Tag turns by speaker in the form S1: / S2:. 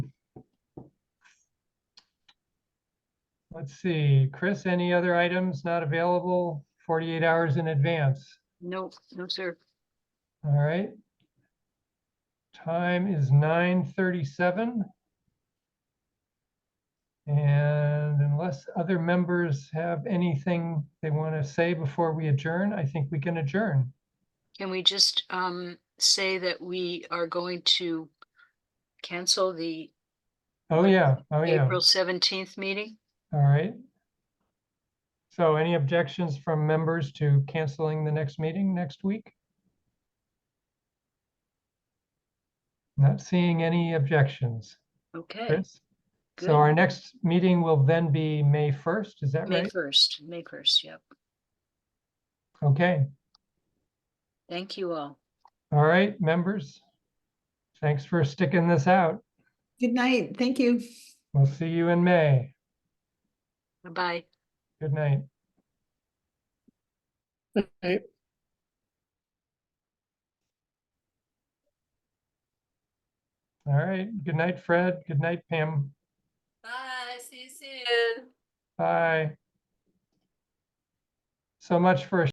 S1: Let's see, Chris, any other items not available forty-eight hours in advance?
S2: No, no, sir.
S1: All right. Time is nine thirty-seven. And unless other members have anything they want to say before we adjourn, I think we can adjourn.
S2: Can we just um say that we are going to cancel the
S1: Oh, yeah, oh, yeah,
S2: April seventeenth meeting?
S1: all right. So any objections from members to canceling the next meeting next week? Not seeing any objections,
S2: Okay,
S1: Chris?
S2: good.
S1: So our next meeting will then be May 1st, is that
S2: May
S1: right?
S2: first, May first, yep.
S1: Okay,
S2: Thank you all.
S1: all right, members. Thanks for sticking this out.
S3: Good night. Thank you.
S1: We'll see you in May.
S2: Bye-bye.
S1: Good night. All right, good night, Fred. Good night, Pam.
S4: Bye, see you soon.
S1: Bye. So much for a